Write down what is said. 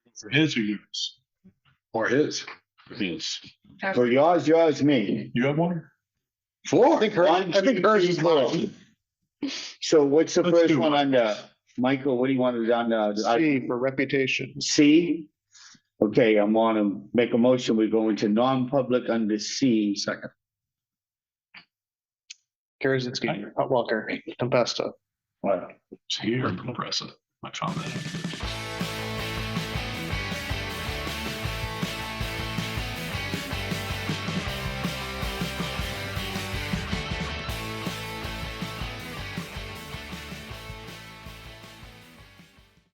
for his or yours? Or his, I mean, it's- For yours, yours, me. you have one? Four. I think her- I think hers is little. So what's the Let's first do one it. on the, Michael, what do you want it on uh, the? I- C for reputation. C? Okay, I'm on to make a motion. We go into non-public under C. Second. Karazinski, Hot Walker, Tempesta. What? It's here, compressor, my comment.